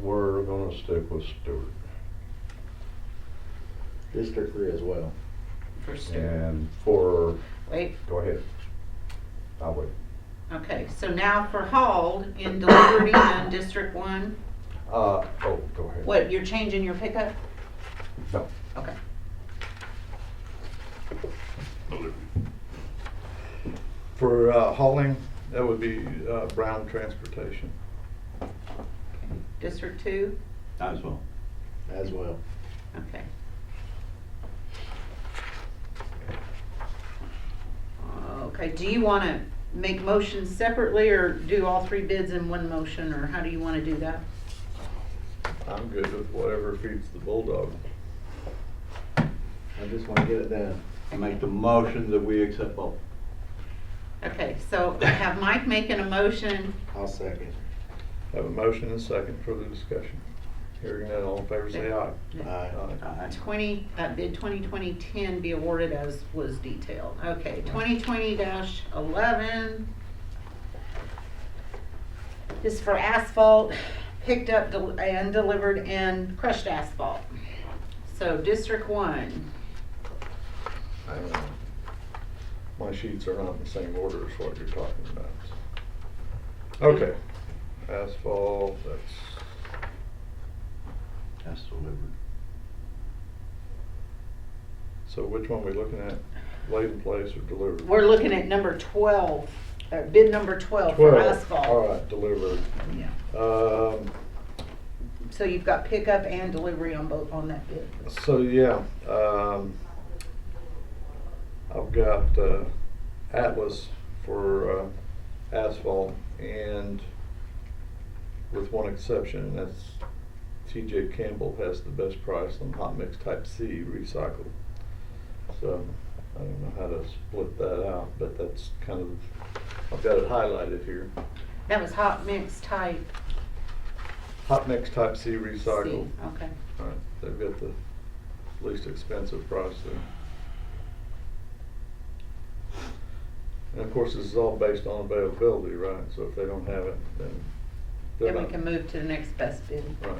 we're gonna stick with Stewart. District three as well. for Stewart. And for, Wait, go ahead. I'll wait. okay, so now for Hall in Liberty and District One, Uh, oh, go ahead. what, you're changing your pickup? No. Okay. For uh, hauling, that would be uh, Brown Transportation. District Two, Might as well. As well. okay. Okay, do you wanna make motions separately or do all three bids in one motion, or how do you wanna do that? I'm good with whatever feeds the bulldog. I just wanna get it done. I make the motion that we accept both. Okay, so I have Mike making a motion I'll second. Have a motion and second for the discussion. Hearing none, all in favor say aye. Aye. Aye. 20, uh, bid 2020-10 be awarded as was detailed. Okay, 2020-11. This is for asphalt, picked up del- and delivered and crushed asphalt. So District 1, Hang on. Uh, My sheets are not in the same order as what you're talking about. Okay, asphalt, that's, That's delivered. so which one are we looking at? Laid in place or delivered? we're looking at number 12, uh, bid number 12 for Twelve. All asphalt. right, delivered. Yeah. Um, So you've got pickup and delivery on both, on that bid. So, yeah, um, I've got, uh, Atlas for, uh, asphalt and with one exception, and that's TJ Campbell has the best price on hot mix type C recycled. So, I don't know how to split that out, but that's kind of, I've got it highlighted here. That was hot mix type. Hot mix type C C. recycled. Okay. All right, they've got the least expensive price there. And of course, this is all based on availability, right? So if they don't have it, then they're Then we not- can move to the next best bid. Right.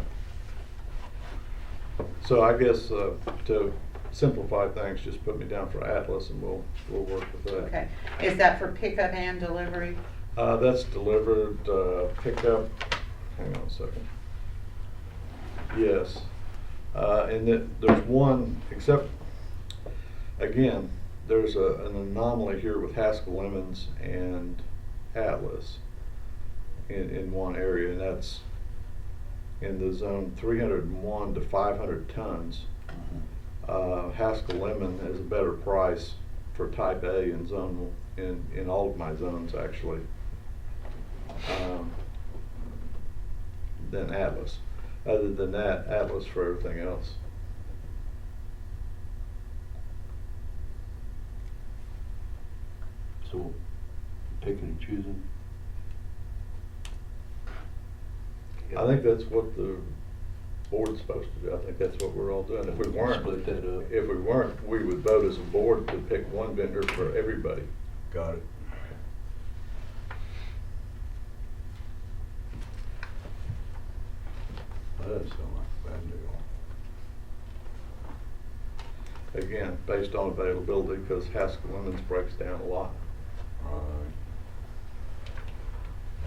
So I guess uh, to simplify things, just put me down for Atlas and we'll, we'll work with that. Okay, is that for pickup and delivery? Uh, that's delivered, uh, pickup, hang on a second. Yes, uh, and then there's one, except, again, there's a, an anomaly here with Haskell Lemons and Atlas in, in one area, and that's in the zone three hundred and one to five hundred tons. Uh, Haskell Lemon has a better price for type A in zone, in, in all of my zones, actually um, than Atlas. Other than that, Atlas for everything else. So we're picking and choosing. I think that's what the board's supposed to do. I think that's what we're all doing. If we weren't, Split that up. if we weren't, we would vote as a board to pick one vendor for everybody. Got it. That doesn't sound like a bad deal. Again, based on availability, because Haskell Lemons breaks down a lot. Right.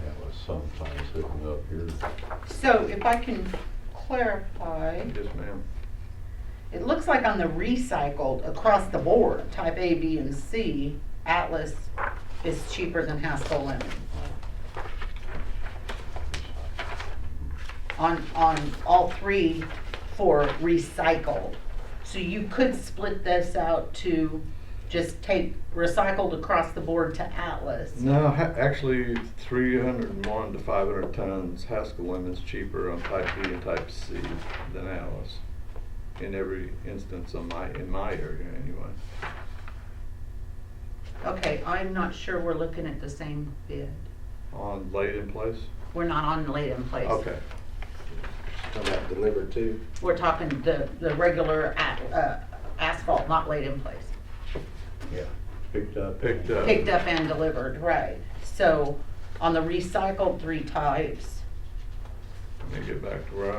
That was sometime sitting up here. So if I can clarify, Yes, ma'am. it looks like on the recycled, across the board, type A, B, and C, Atlas is cheaper than Haskell Lemon. On, on all three for recycled. So you could split this out to just take recycled across the board to Atlas. No, ha- actually, three hundred and one to five hundred tons, Haskell Lemon's cheaper on type B and type C than Atlas. In every instance on my, in my area anyway. Okay, I'm not sure we're looking at the same bid. On laid in place? We're not on laid in place. Okay, How about delivered two? We're talking the, the regular a- uh, asphalt, not laid in place. Yeah. Picked uh, up. picked up. Picked up and delivered, right. So on the recycled three types, me get back to where I